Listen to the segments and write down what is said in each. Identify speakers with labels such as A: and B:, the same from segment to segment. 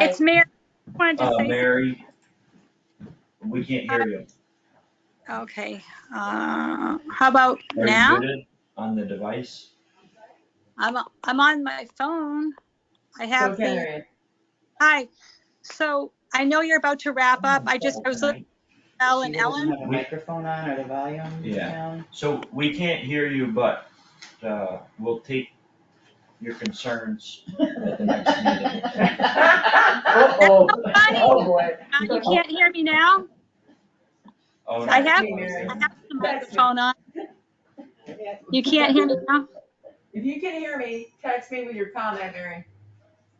A: It's Mary. I Wanted to
B: Uh,
A: say,
B: Mary, we can't hear you.
A: okay, uh, how about
B: Are you
A: now?
B: muted On the device?
A: I'm, I'm on my phone. I
C: So
A: have the,
C: Karen,
A: hi. So I know you're about to wrap up. I just, I was looking at Al and
C: she doesn't
A: Ellen.
C: have a microphone on or the volume
B: Yeah.
C: down.
B: So we can't hear you, but, uh, we'll take your concerns at the next meeting.
C: Uh-oh.
A: That's so
C: Oh, boy.
A: Uh, You can't hear me now?
B: Oh, no.
A: I have- I
C: Mary.
A: have the microphone on. You can't hear me now?
D: If you can hear me, text me with your comment, Mary.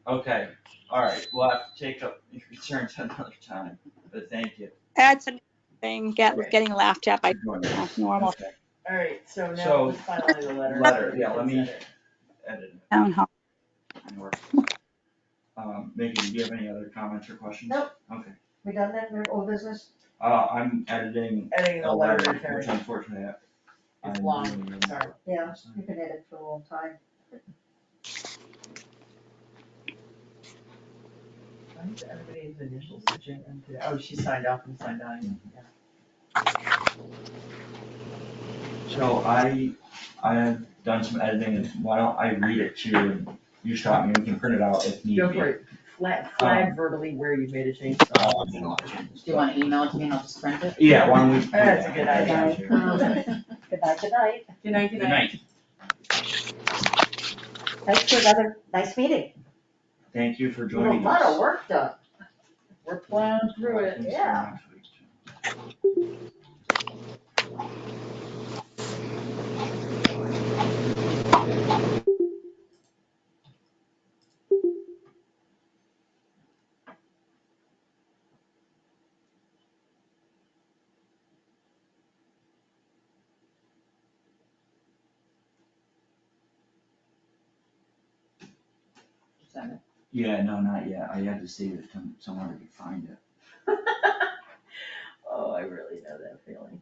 B: Okay, all right, we'll have to take up your concerns another time, but thank you.
A: That's a thing, get, getting laughed at by
B: for joining us.
A: normal
B: Okay,
C: All right, so
B: So,
C: now let's Oh, finally the letter.
B: letter, yeah, let me- edit it
A: town hall.
B: and work. Um, Megan, do you have any other comments or questions?
C: Nope.
B: Okay,
C: We done that, we're old business?
B: uh, I'm editing
C: Editing
B: a
C: the letter,
B: letter,
C: Karen.
B: which unfortunately I.
C: It's
B: I'm
C: long,
B: doing-
C: sorry.
E: Yeah, you can edit for a long time.
C: Why is everybody's initials such a- Oh, she signed off and signed on. yeah.
B: So I, I've done some editing, and why don't I read it to you, and you stop me, we can print it out if need be. Um,
C: Go for it, flag, flag verbally where you made a change.
B: Uh, I'm gonna watch it.
F: Do you wanna email it to me and I'll just print it?
B: Yeah, why don't we? do
C: That's a
B: that?
C: good idea.
E: Um, Goodbye, good night.
D: Good night,
B: Good
D: good night.
B: night,
E: Thanks for another nice meeting.
B: thank you for
E: A
B: joining us.
E: lot of work done.
C: We're plowing through it.
E: yeah.
F: Send it.
B: Yeah, no, not yet, I had to save it to somewhere to find it.
C: Oh, I really know that feeling.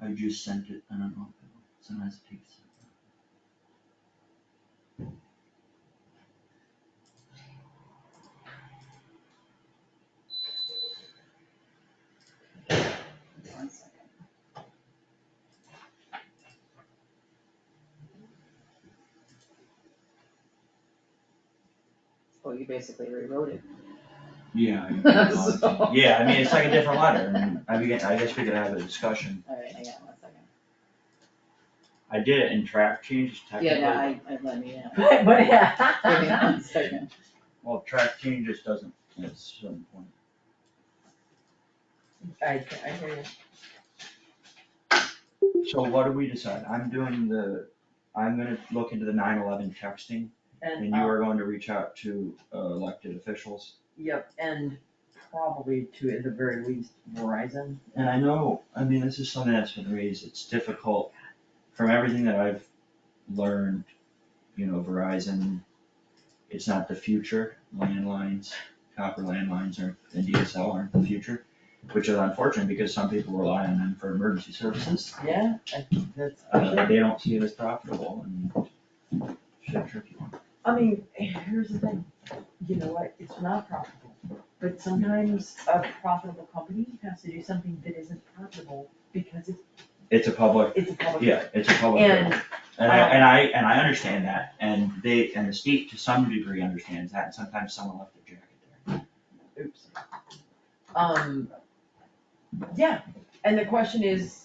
B: I just sent it, I don't know, sometimes it takes.
F: One second. Well, you basically rewrote it.
B: Yeah.
F: So-
B: I- Yeah, I mean, it's like a different letter, and I mean, I guess we could have a discussion,
F: Alright, I got one second.
B: I did it in track changes
F: Yeah,
B: technically.
F: no, I, I let me, know.
C: But, but,
F: Give me
C: yeah.
F: one second.
B: Well, track changes doesn't, at some point.
C: I, I hear you.
B: So what do we decide? I'm doing the, I'm gonna look into the nine eleven texting, and
C: And,
B: you
C: um,
B: are going to reach out to uh, elected officials.
C: yep, and probably to, at the very least, Verizon.
B: And I know, I mean, this is something that's been raised, it's difficult, from everything that I've learned, you know, Verizon, it's not the future, landlines, copper landlines are, and DSL aren't the future, which is unfortunate because some people rely on them for emergency services.
C: Yeah, I think that's,
B: Uh, they don't see it as profitable and it's a tricky one.
C: I mean, here's the thing, you know what, it's not profitable, but sometimes a profitable company has to do something that isn't profitable because it's,
B: It's a public,
C: it's a public.
B: yeah, it's a public. good.
C: And,
B: And I, and I, and I understand that, and they, and the state to some degree understands that, and sometimes someone left their jacket there.
C: oops. Um, yeah, and the question is,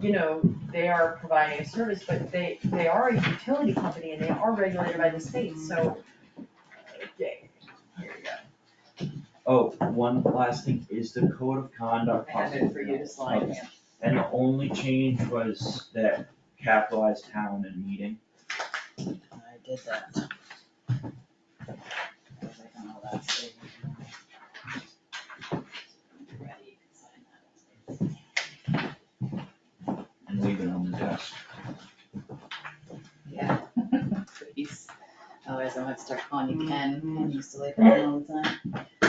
C: you know, they are providing a service, but they, they are a utility company and they are regulated by the state, so. Okay, here we go.
B: Oh, one last thing, is the code of conduct
F: I have it
B: possible?
F: for you to slide in.
B: And the only change was that capitalized town and meeting.
F: I did that. I was like, oh, that's big. Ready, you can sign that.
B: And leave it on the desk.
F: Yeah. Mm-hmm. Please. Otherwise I am gonna start calling you Ken, Ken used to like that all the time.